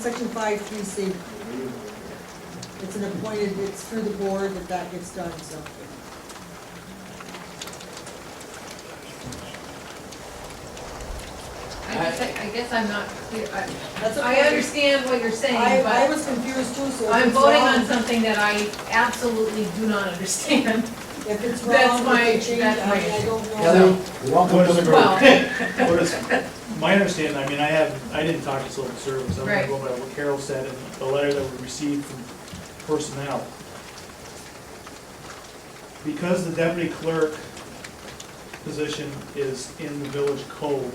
Section five, three C. It's an appointed, it's through the board that that gets done, so. I guess, I- I guess I'm not clear, I, That's I okay. understand what you're I, saying, I but was confused too, so if I'm it's voting on wrong, something that I absolutely do not understand. if it's that's wrong, my- if they change, that's I mean, my- I don't know. Heather, welcome to the Well, group. What is, my understanding, I mean, I have, I didn't talk to Civil Service, I'm gonna go by what Carol said and the letter that we received from personnel. Because the deputy clerk position is in the village code,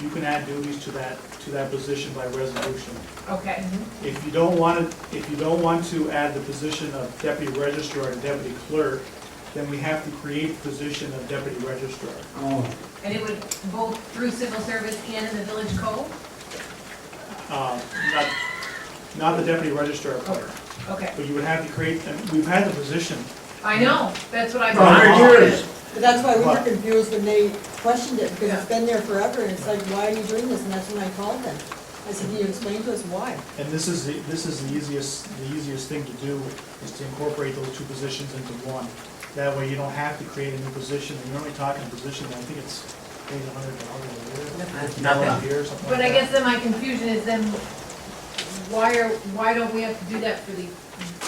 you can add duties to that, to that position by resolution. Okay, If you don't want to, if you don't want to add the position of deputy registrar and deputy clerk, then we have to create the position of deputy registrar. Oh, and it would both through civil service and in the village code? Uh, not, not the deputy registrar clerk, Okay, but you would have to create, and we've had the position. I know, that's what I. For a hundred years. But that's why we were What? confused when they questioned it, because Yeah. it's been there forever, and it's like, why are you doing this? And that's when I called them. I said, can you explain to us why? And this is, the- this is the easiest, the easiest thing to do, is to incorporate those two positions into one. That way you don't have to create a new position, and you're only talking position, I think it's maybe a hundred thousand a year. Nothing. a year, something like But I that. guess then my confusion is then, why are, why don't we have to do that for the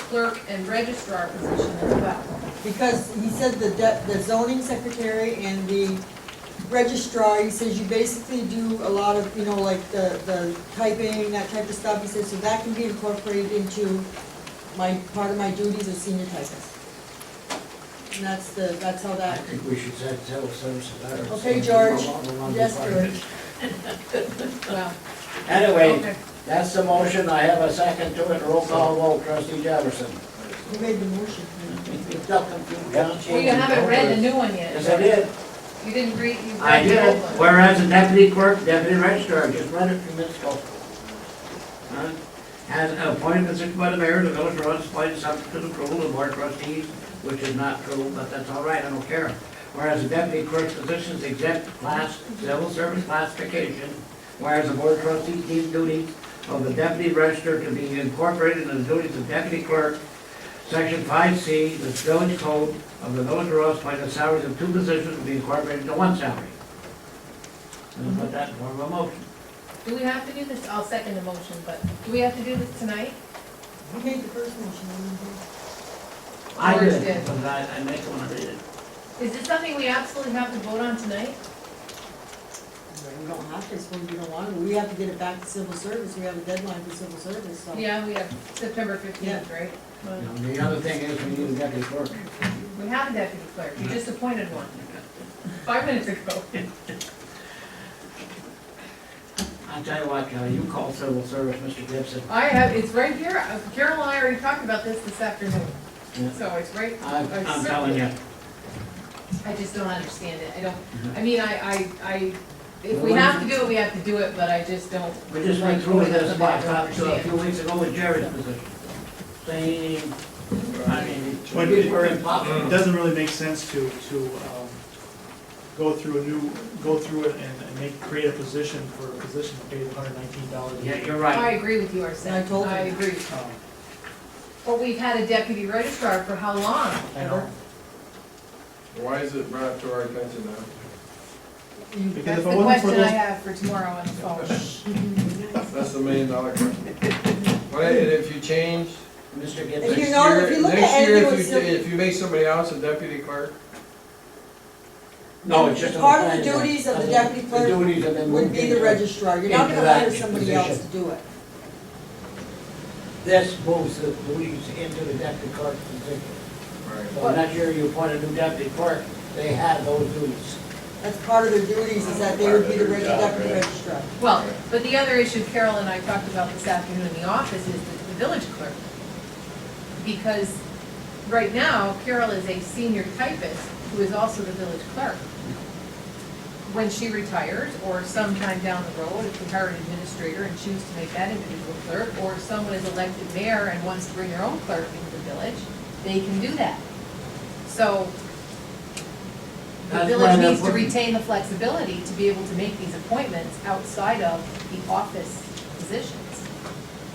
clerk and registrar position as well? Because he said the de- the zoning secretary and the registrar, he says you basically do a lot of, you know, like the, the typing, that type of stuff. He says, so that can be incorporated into my, part of my duties as senior typist. And that's the, that's how I that, think we should send civil service a letter. Okay, saying George. we no longer want to yes, be part of it. George. Well, Anyway, okay. that's the motion, I have a second to it, roll call vote, trustee Jefferson. You made the motion. You've got confused, don't Well, you haven't read the new one yet. Yes, I did, You didn't read, you I read the did, old one. whereas the deputy clerk, deputy registrar, just read it a few minutes ago. Huh? Has appointments issued by the mayor, the village runs, appointed subject to the approval of the board of trustees, which is not true, but that's all right, I don't care. Whereas the deputy clerk's position is exempt class, civil service classification, whereas the board of trustees deems duties of the deputy registrar to be incorporated in the duties of deputy clerk, section five C, the village code of the village of Rose, by the salaries of two positions to be incorporated into one salary. And put that in form of a motion. Do we have to do this, I'll second the motion, but do we have to do this tonight? You made the first motion, I remember. I George did, did. because I, I make one, I read it. Is this something we absolutely have to vote on tonight? We don't have to, so we don't want to. We have to get it back to civil service. We have a deadline for civil service, so. Yeah, we have September fifteenth, right? Well, Now, The other thing is, we need a deputy clerk. We have a deputy clerk, you just appointed one, five minutes ago. I'll tell you what, Kelly, you call civil service, Mr. Gibson. I have, it's right here, Uh, Carol and I already talked about this this afternoon, Yeah. so it's right, I'm, I'm telling you. I just don't understand it, I Mm-hmm. don't, I mean, I, I, I, if we have to do it, we have to do it, but I just don't. We just went through with this about uh, so a few weeks ago with Jerry's position. Same, I mean, But we it- were impossible. It doesn't really make sense to, to um, go through a new, go through it and and make, create a position for a position that pays hundred nineteen dollars a year. Yeah, you're I right. agree with you, Arsen, I told I you. agree. Um, But we've had a deputy registrar for how long? I know. Why is it brought to our attention now? You- Because That's if the it wasn't for question I those have for tomorrow on the phone. That's the million dollar question. But if you change, Mr. If Gibson, you next know- year, if you look next at year, anything if you, with ta- if you make somebody else a deputy clerk, no, it's just. Part of the duties of the deputy clerk The duties have been would moved be the into- registrar, you're not into gonna hire that somebody else to position. do it. This moves the duties into the deputy clerk position. So next year you appoint a new deputy clerk, they have those duties. That's part of their duties, is that they would be the Part reg- of their job, deputy right. registrar. Well, but the other issue Carol and I talked about this afternoon in the office is the the village clerk. Because right now, Carol is a senior typist who is also the village clerk. When she retires, or sometime down the road, if we hire an administrator and choose to make that individual clerk, or someone is elected mayor and wants to bring their own clerk into the village, they can do that. So the That's why village they're needs to putting- retain the flexibility to be able to make these appointments outside of the office position.